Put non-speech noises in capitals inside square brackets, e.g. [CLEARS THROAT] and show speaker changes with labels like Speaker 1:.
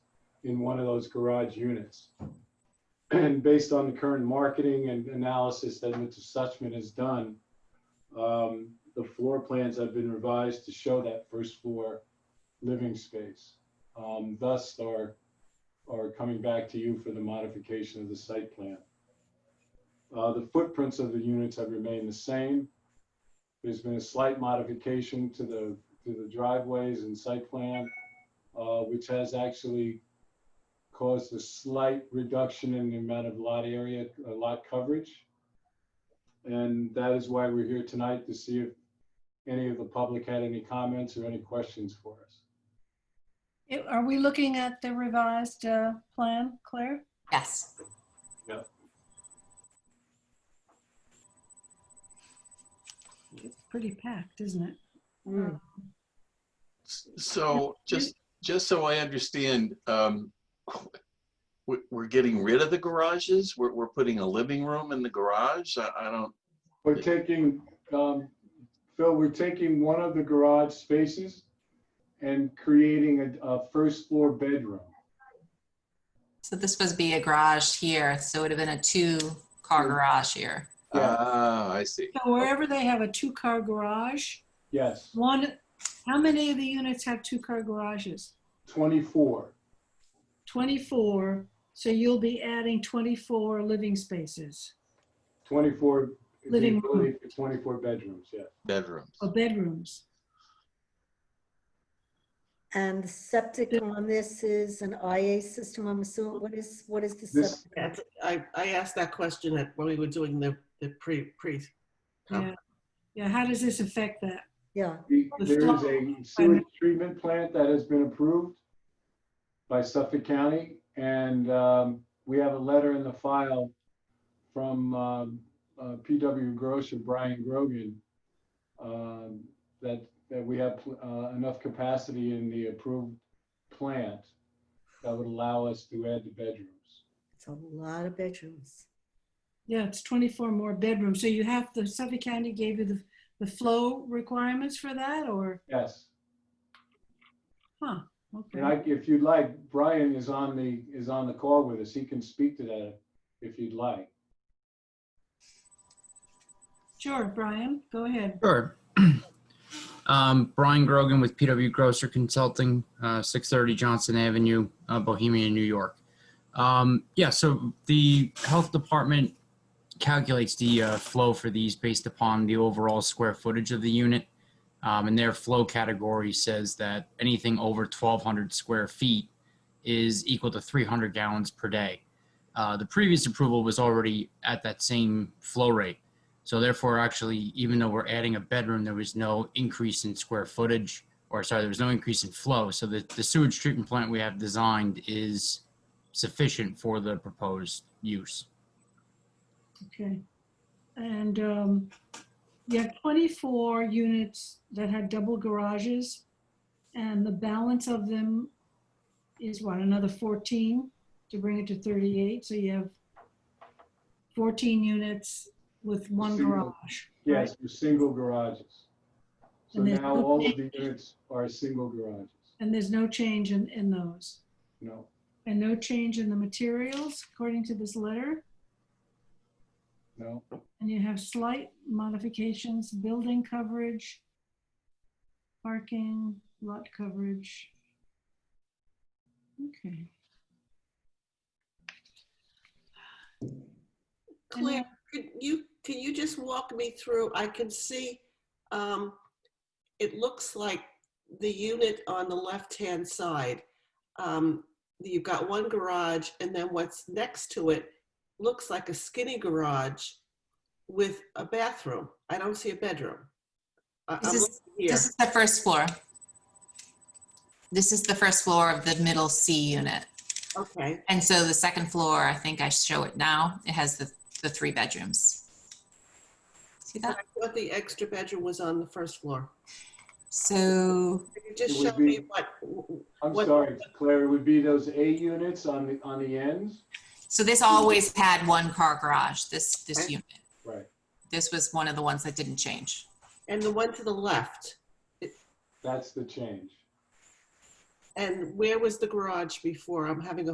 Speaker 1: in one of those garage units. And based on the current marketing and analysis that Mr. Suchman has done, um, the floor plans have been revised to show that first floor living space. Um, Thus, are, are coming back to you for the modification of the site plan. Uh, The footprints of the units have remained the same. There's been a slight modification to the, to the driveways and site plan, uh, which has actually caused a slight reduction in the amount of lot area, uh, lot coverage. And that is why we're here tonight to see if any of the public had any comments or any questions for us.
Speaker 2: It- Are we looking at the revised uh, plan, Claire?
Speaker 3: Yes.
Speaker 2: It's pretty packed, isn't it?
Speaker 4: Mm.
Speaker 5: S- So just, just so I understand, um, we- we're getting rid of the garages? We're, we're putting a living room in the garage? I, I don't,
Speaker 1: We're taking, um, Phil, we're taking one of the garage spaces and creating a, a first floor bedroom.
Speaker 3: So this was be a garage here, so it would have been a two-car garage here.
Speaker 1: Yeah.
Speaker 5: ah, I see.
Speaker 2: So wherever they have a two-car garage,
Speaker 1: Yes,
Speaker 2: one, how many of the units have two-car garages?
Speaker 1: twenty-four.
Speaker 2: 24, so you'll be adding 24 living spaces
Speaker 1: 24, the
Speaker 2: Living room.
Speaker 1: ability for 24 bedrooms, yeah.
Speaker 5: Bedrooms.
Speaker 2: or bedrooms.
Speaker 4: And the septic on this is an IA system, I'm assuming, what is, what is the
Speaker 1: This-
Speaker 4: septic?
Speaker 6: That's, I, I asked that question at, when we were doing the, the pre, pre, Oh.
Speaker 2: Yeah, yeah, how does this affect that?
Speaker 4: Yeah,
Speaker 1: The-
Speaker 2: The
Speaker 1: There is
Speaker 2: flow-
Speaker 1: a sewage treatment plant that has been approved by Suffolk County, and um, we have a letter in the file from um, uh, PW Gross and Brian Grogan um, that, that we have uh, enough capacity in the approved plant that would allow us to add the bedrooms.
Speaker 4: it's a lot of bedrooms.
Speaker 2: Yeah, it's 24 more bedrooms, so you have, the Suffolk County gave you the, the flow requirements for that, or,
Speaker 1: Yes.
Speaker 2: huh,
Speaker 1: And I,
Speaker 2: okay.
Speaker 1: if you'd like, Brian is on the, is on the call with us. He can speak to that if you'd like.
Speaker 2: Sure, Brian, go ahead.
Speaker 7: Sure. [CLEARS THROAT] um, Brian Grogan with PW Grosser Consulting, uh, 630 Johnson Avenue, uh, Bohemia, New York. Um, yeah, so the health department calculates the uh, flow for these based upon the overall square footage of the unit. Um, and their flow category says that anything over 1,200 square feet is equal to 300 gallons per day. Uh, the previous approval was already at that same flow rate. So therefore, actually, even though we're adding a bedroom, there was no increase in square footage, or sorry, there was no increase in flow. So the, the sewage treatment plant we have designed is sufficient for the proposed use.
Speaker 2: Okay. And um, you have 24 units that had double garages, and the balance of them is what, another 14 to bring it to 38? So you have 14 units with one
Speaker 1: Single.
Speaker 2: garage.
Speaker 1: Yes, they're single garages. So
Speaker 2: And there's
Speaker 1: now
Speaker 2: no
Speaker 1: all of the
Speaker 2: change.
Speaker 1: units are single garages.
Speaker 2: And there's no change in, in those.
Speaker 1: No,
Speaker 2: And no change in the materials, according to this letter.
Speaker 1: no.
Speaker 2: And you have slight modifications, building coverage, parking, lot coverage. Okay.
Speaker 6: Claire, could you, can you just walk me through, I can see, um, it looks like the unit on the left-hand side. Um, you've got one garage and then what's next to it looks like a skinny garage with a bathroom. I don't see a bedroom. I-
Speaker 3: This
Speaker 6: I'm
Speaker 3: is-
Speaker 6: looking here.
Speaker 3: This is the first floor. This is the first floor of the middle C unit.
Speaker 6: Okay.
Speaker 3: And so the second floor, I think I show it now, it has the, the three bedrooms. See
Speaker 6: I
Speaker 3: that?
Speaker 6: thought the extra bedroom was on the first floor.
Speaker 3: So,
Speaker 6: Could you just
Speaker 1: It would
Speaker 6: show me
Speaker 1: be-
Speaker 6: what,
Speaker 1: I'm
Speaker 6: What-
Speaker 1: sorry, Claire, it would be those A units on the, on the ends?
Speaker 3: so this always had one car garage, this, this
Speaker 6: Okay.
Speaker 3: unit.
Speaker 1: Right.
Speaker 3: This was one of the ones that didn't change.
Speaker 6: and the one to the left?
Speaker 1: That's the change.
Speaker 6: And where was the garage before? I'm having a